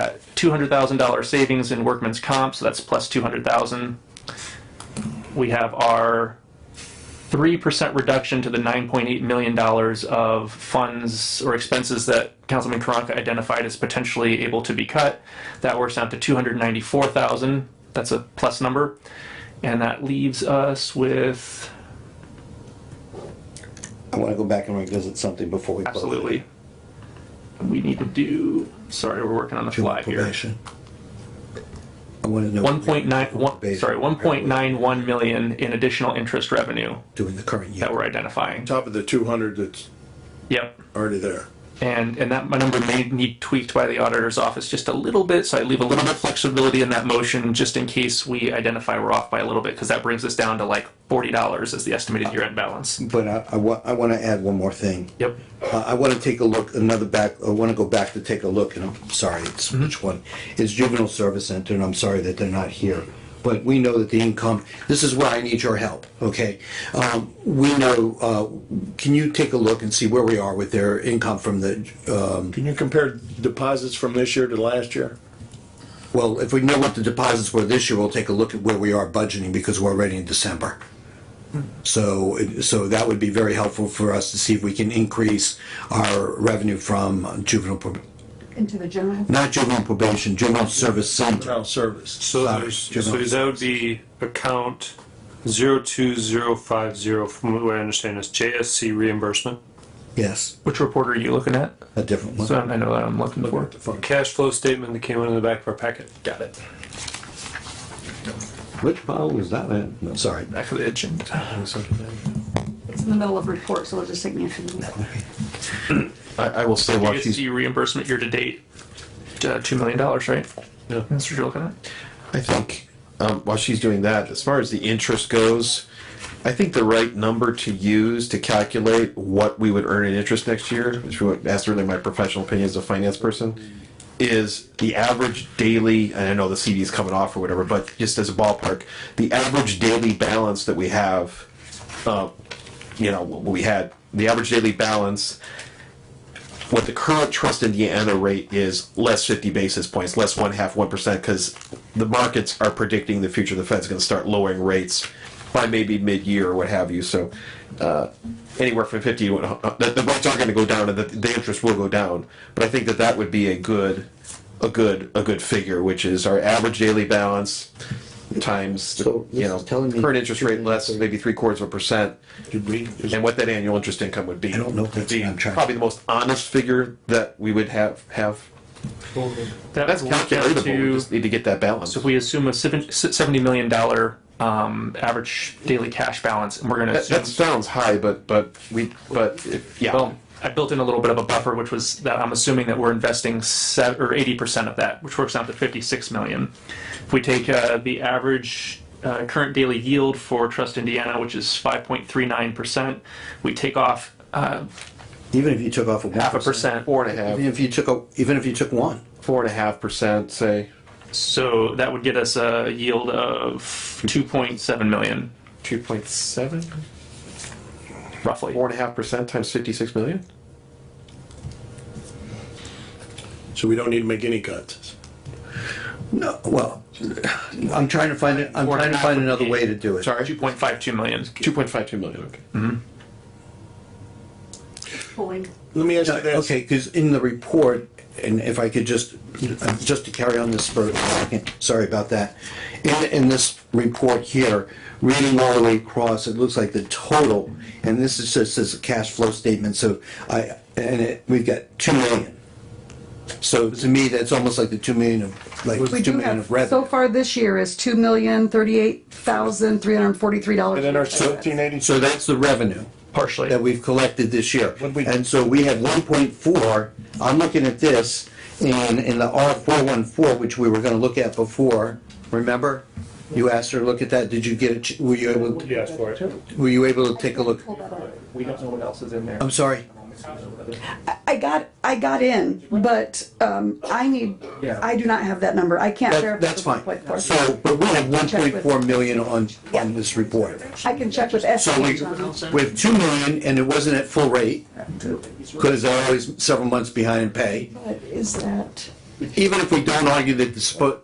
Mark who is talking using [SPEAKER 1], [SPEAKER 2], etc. [SPEAKER 1] $200,000 savings in workman's comp, so that's plus 200,000. We have our 3% reduction to the $9.8 million of funds or expenses that Councilman Karanka identified as potentially able to be cut. That works out to 294,000. That's a plus number. And that leaves us with,
[SPEAKER 2] I want to go back and revisit something before we. close it.
[SPEAKER 1] absolutely, we need to do, sorry, we're working on the fly here.
[SPEAKER 2] Probation. I want to know.
[SPEAKER 1] One point nine one.
[SPEAKER 2] Probation.
[SPEAKER 1] sorry, 1.91 million in additional interest revenue
[SPEAKER 2] Doing the current year.
[SPEAKER 1] that we're identifying.
[SPEAKER 3] top of the 200 that's
[SPEAKER 1] Yep.
[SPEAKER 3] already there.
[SPEAKER 1] And, and that number may need tweaked by the auditor's office just a little bit, so I leave a little bit of flexibility in that motion just in case we identify we're off by a little bit, because that brings us down to like forty dollars as the estimated year-end balance.
[SPEAKER 2] But I, I want, I want to add one more thing.
[SPEAKER 1] Yep.
[SPEAKER 2] Uh, I want to take a look, another back, I want to go back to take a look, and I'm sorry, it's
[SPEAKER 1] Mm-hmm.
[SPEAKER 2] which one? It's Juvenile Service Center, and I'm sorry that they're not here. But we know that the income, this is where I need your help, okay? Um, we know, uh, can you take a look and see where we are with their income from the, um,
[SPEAKER 3] Can you compare deposits from this year to last year?
[SPEAKER 2] well, if we know what the deposits were this year, we'll take a look at where we are budgeting because we're already in December. So, so that would be very helpful for us to see if we can increase our revenue from juvenile pro-
[SPEAKER 4] into the general.
[SPEAKER 2] not juvenile probation, juvenile service center.
[SPEAKER 3] Child service.
[SPEAKER 5] So
[SPEAKER 2] Sorry,
[SPEAKER 5] there's, so
[SPEAKER 2] juvenile
[SPEAKER 5] that would be account zero two zero five zero, from what I understand is JSC reimbursement.
[SPEAKER 2] Yes,
[SPEAKER 1] Which report are you looking at?
[SPEAKER 2] a different
[SPEAKER 1] So
[SPEAKER 2] one.
[SPEAKER 1] I know that I'm looking for.
[SPEAKER 5] Cash flow statement that came out of the back of our packet.
[SPEAKER 1] Got it.
[SPEAKER 2] Which pile was that in? No, Sorry.
[SPEAKER 1] Back of the agenda.
[SPEAKER 4] It's in the middle of report, so it'll just take me a few minutes.
[SPEAKER 6] I, I will say while Oh, she's,
[SPEAKER 1] GST reimbursement year-to-date, uh, two million dollars, right?
[SPEAKER 5] Yeah.
[SPEAKER 1] That's what you're looking at?
[SPEAKER 6] I think, um, while she's doing that, as far as the interest goes, I think the right number to use to calculate what we would earn in interest next year, which would, that's really my professional opinion as a finance person, is the average daily, and I know the CD is coming off or whatever, but just as a ballpark, the average daily balance that we have, uh, you know, what we had, the average daily balance what the current trust Indiana rate is less 50 basis points, less one half 1%, because the markets are predicting the future the Fed's going to start lowering rates by maybe mid year or what have you. So, uh, anywhere from 50 to uh, the, the rates are going to go down and the, the interest will go down. But I think that that would be a good. A good a good figure, which is our average daily balance times the,
[SPEAKER 2] So this
[SPEAKER 6] you know
[SPEAKER 2] is telling me-
[SPEAKER 6] current interest rate less maybe three quarters of a percent,
[SPEAKER 2] Did we- is-
[SPEAKER 6] and what that annual interest income would be.
[SPEAKER 2] I don't know if that's what I'm trying-
[SPEAKER 6] Probably the most honest figure that we would have, have.
[SPEAKER 1] That
[SPEAKER 6] That's
[SPEAKER 1] would work out
[SPEAKER 6] calculatable, we
[SPEAKER 1] to-
[SPEAKER 6] just need to get that balance.
[SPEAKER 1] So if we assume a seven- seventy million dollar, um, average daily cash balance, and we're gonna
[SPEAKER 6] That,
[SPEAKER 1] assume.
[SPEAKER 6] that sounds high, but, but we, but, if- yeah.
[SPEAKER 1] Well, I built in a little bit of a buffer, which was that I'm assuming that we're investing se or eighty percent of that, which works out to fifty-six million. If we take uh, the average uh, current daily yield for Trust Indiana, which is five point three nine percent, we take off uh,
[SPEAKER 2] Even if you took off a
[SPEAKER 1] half a
[SPEAKER 2] one,
[SPEAKER 1] percent.
[SPEAKER 6] Four and a
[SPEAKER 2] even
[SPEAKER 6] half,
[SPEAKER 2] if you took, a- even if you took one,
[SPEAKER 6] four and a half percent, say,
[SPEAKER 1] So that would get us a yield of two point seven million,
[SPEAKER 6] two point seven?
[SPEAKER 1] roughly.
[SPEAKER 6] Four and a half percent times fifty-six million?
[SPEAKER 3] So we don't need to make any cuts.
[SPEAKER 2] no, well, I'm trying to find, it. I'm
[SPEAKER 1] Or
[SPEAKER 2] trying to
[SPEAKER 1] not
[SPEAKER 2] find
[SPEAKER 1] would
[SPEAKER 2] another
[SPEAKER 1] be-
[SPEAKER 2] way to do it.
[SPEAKER 1] Two point five two million.
[SPEAKER 6] Two point five two million, okay.
[SPEAKER 4] Pulling.
[SPEAKER 3] Let me ask
[SPEAKER 2] No,
[SPEAKER 3] you this.
[SPEAKER 2] Okay, because in the report, and if I could just, just to carry on this for a second, sorry about that. In, in this report here, reading all the way across, it looks like the total, and this is just as a cash flow statement, so I, and it, we've got two million. So to me, that's almost like the two million of, like,
[SPEAKER 4] We
[SPEAKER 2] two
[SPEAKER 4] do
[SPEAKER 2] million of
[SPEAKER 4] have, so
[SPEAKER 2] revenue.
[SPEAKER 4] far this year is two million thirty-eight thousand three hundred and forty-three dollars.
[SPEAKER 3] And then our 1780,
[SPEAKER 2] So that's the revenue.
[SPEAKER 1] Partially.
[SPEAKER 2] that we've collected this year.
[SPEAKER 3] What'd we-
[SPEAKER 2] And so we had one point four, I'm looking at this, and in the R four one four, which we were gonna look at before, remember? You asked her to look at that, did you get, a ch- were you able,
[SPEAKER 5] Yes, for it.
[SPEAKER 2] were you able to take a look?
[SPEAKER 1] We don't know what else is in there.
[SPEAKER 2] I'm sorry,
[SPEAKER 4] I got, I got in, but, um, I need, I do not have that number. I can't verify.
[SPEAKER 2] that, that's
[SPEAKER 4] the
[SPEAKER 2] fine.
[SPEAKER 4] 1.4.
[SPEAKER 2] So, but we have one
[SPEAKER 4] Check
[SPEAKER 2] point
[SPEAKER 4] with-
[SPEAKER 2] four million on, on this report.
[SPEAKER 4] I can check with
[SPEAKER 2] So we,
[SPEAKER 4] SG on it.
[SPEAKER 2] with two million, and it wasn't at full rate, because they're always several months behind in pay.
[SPEAKER 4] But Is that,
[SPEAKER 2] even if we don't argue that the spo-